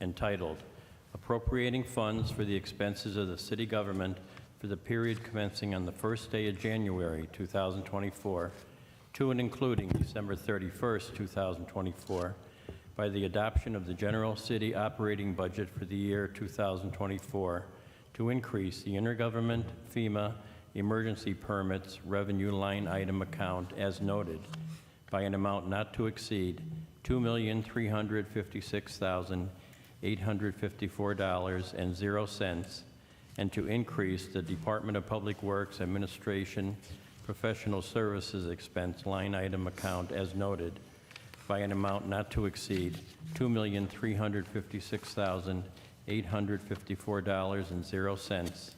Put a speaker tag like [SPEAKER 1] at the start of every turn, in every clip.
[SPEAKER 1] entitled Appropriating Funds for the Expenses of the City Government for the Period Commencing on the First Day of January 2024 to and including December 31st, 2024, by the adoption of the general city operating budget for the year 2024 to increase the intergovernment FEMA emergency permits revenue line item account as noted by an amount not to exceed $2,356,854.00 and to increase the Department of Public Works Administration Professional Services Expense Line Item Account as noted by an amount not to exceed $2,356,854.00.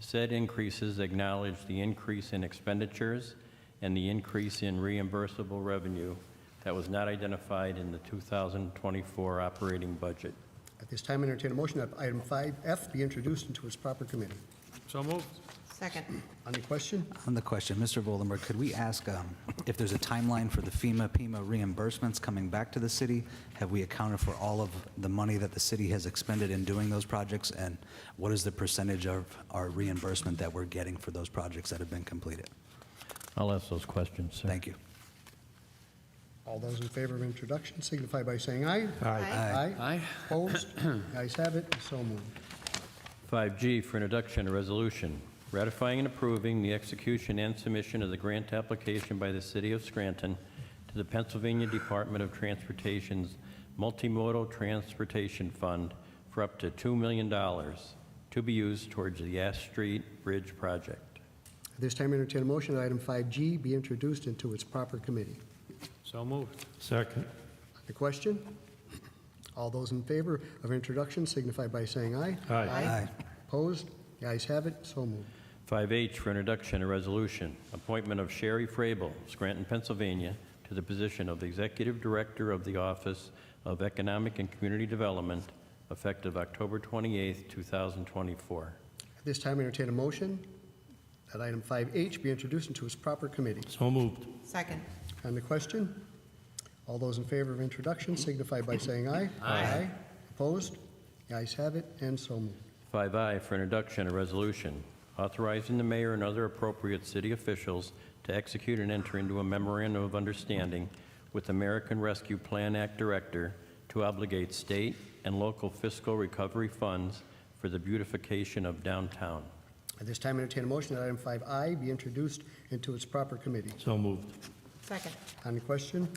[SPEAKER 1] Said increases acknowledge the increase in expenditures and the increase in reimbursable revenue that was not identified in the 2024 operating budget.
[SPEAKER 2] At this time, entertain a motion that item 5F be introduced into its proper committee.
[SPEAKER 3] So moved.
[SPEAKER 4] Second.
[SPEAKER 2] On the question,
[SPEAKER 5] On the question, Mr. Vollenberg, could we ask um, if there's a timeline for the FEMA, PIMA reimbursements coming back to the city? Have we accounted for all of the money that the city has expended in doing those projects? And what is the percentage of our reimbursement that we're getting for those projects that have been completed?
[SPEAKER 1] I'll ask those questions, sir.
[SPEAKER 5] Thank you.
[SPEAKER 2] all those in favor of introduction signify by saying aye.
[SPEAKER 4] Aye.
[SPEAKER 3] Aye.
[SPEAKER 2] Opposed? The ayes have it, and so moved.
[SPEAKER 1] 5G for introduction, a resolution ratifying and approving the execution and submission of the grant application by the City of Scranton to the Pennsylvania Department of Transportation's Multimodal Transportation Fund for up to $2 million to be used towards the Ash Street Bridge project.
[SPEAKER 2] At this time, entertain a motion that item 5G be introduced into its proper committee.
[SPEAKER 3] So moved.
[SPEAKER 6] Second.
[SPEAKER 2] On the question, all those in favor of introduction signify by saying aye.
[SPEAKER 6] Aye.
[SPEAKER 5] Aye.
[SPEAKER 2] Opposed? The ayes have it, so moved.
[SPEAKER 1] 5H for introduction, a resolution, appointment of Sherry Frabel, Scranton, Pennsylvania, to the position of Executive Director of the Office of Economic and Community Development, effective October 28, 2024.
[SPEAKER 2] At this time, entertain a motion that item 5H be introduced into its proper committee.
[SPEAKER 6] So moved.
[SPEAKER 4] Second.
[SPEAKER 2] On the question, all those in favor of introduction signify by saying aye. Aye. Opposed? The ayes have it, and so moved.
[SPEAKER 1] 5I for introduction, a resolution authorizing the mayor and other appropriate city officials to execute and enter into a memorandum of understanding with American Rescue Plan Act Director to obligate state and local fiscal recovery funds for the beautification of downtown.
[SPEAKER 2] At this time, entertain a motion that item 5I be introduced into its proper committee.
[SPEAKER 6] So moved.
[SPEAKER 4] Second.
[SPEAKER 2] On the question,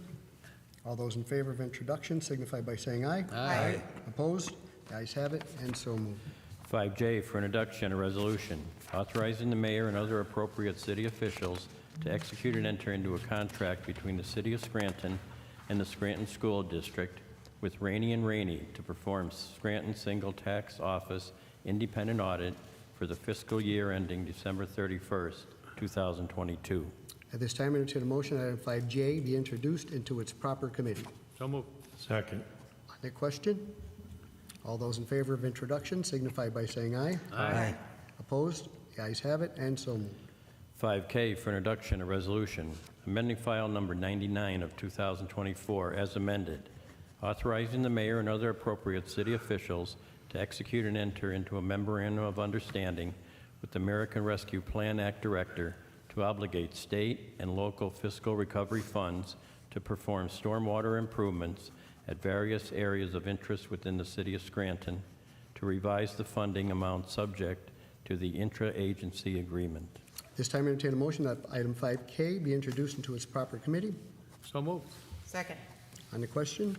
[SPEAKER 2] all those in favor of introduction signify by saying aye.
[SPEAKER 4] Aye.
[SPEAKER 2] Opposed? The ayes have it, and so moved.
[SPEAKER 1] 5J for introduction, a resolution authorizing the mayor and other appropriate city officials to execute and enter into a contract between the city of Scranton and the Scranton School District with Rainey and Rainey to perform Scranton Single Tax Office independent audit for the fiscal year ending December 31st, 2022.
[SPEAKER 2] At this time, entertain a motion that item 5J be introduced into its proper committee.
[SPEAKER 3] So moved.
[SPEAKER 6] Second.
[SPEAKER 2] On the question, all those in favor of introduction signify by saying aye.
[SPEAKER 5] Aye.
[SPEAKER 2] Opposed? The ayes have it, and so moved.
[SPEAKER 1] 5K for introduction, a resolution amending file number 99 of 2024 as amended, authorizing the mayor and other appropriate city officials to execute and enter into a memorandum of understanding with the American Rescue Plan Act Director to obligate state and local fiscal recovery funds to perform stormwater improvements at various areas of interest within the city of Scranton, to revise the funding amount subject to the intra-agency agreement.
[SPEAKER 2] This time, entertain a motion that item 5K be introduced into its proper committee.
[SPEAKER 3] So moved.
[SPEAKER 4] Second.
[SPEAKER 2] On the question,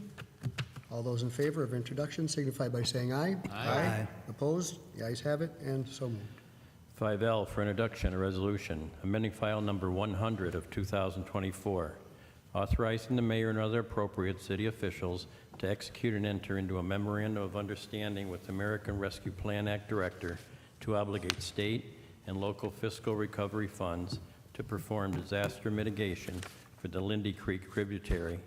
[SPEAKER 2] all those in favor of introduction signify by saying aye.
[SPEAKER 5] Aye.
[SPEAKER 2] Opposed? The ayes have it, and so moved.
[SPEAKER 1] 5L for introduction, a resolution amending file number 100 of 2024, authorizing the mayor and other appropriate city officials to execute and enter into a memorandum of understanding with American Rescue Plan Act Director to obligate state and local fiscal recovery funds to perform disaster mitigation for the Lindy Creek tributary,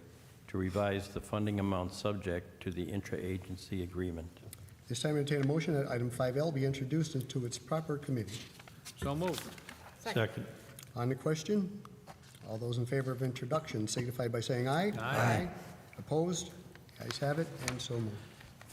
[SPEAKER 1] to revise the funding amount subject to the intra-agency agreement.
[SPEAKER 2] This time, entertain a motion that item 5L be introduced into its proper committee.
[SPEAKER 3] So moved.
[SPEAKER 6] Second.
[SPEAKER 2] On the question, all those in favor of introduction signify by saying aye.
[SPEAKER 3] Aye.
[SPEAKER 2] Opposed? The ayes have it, and so moved.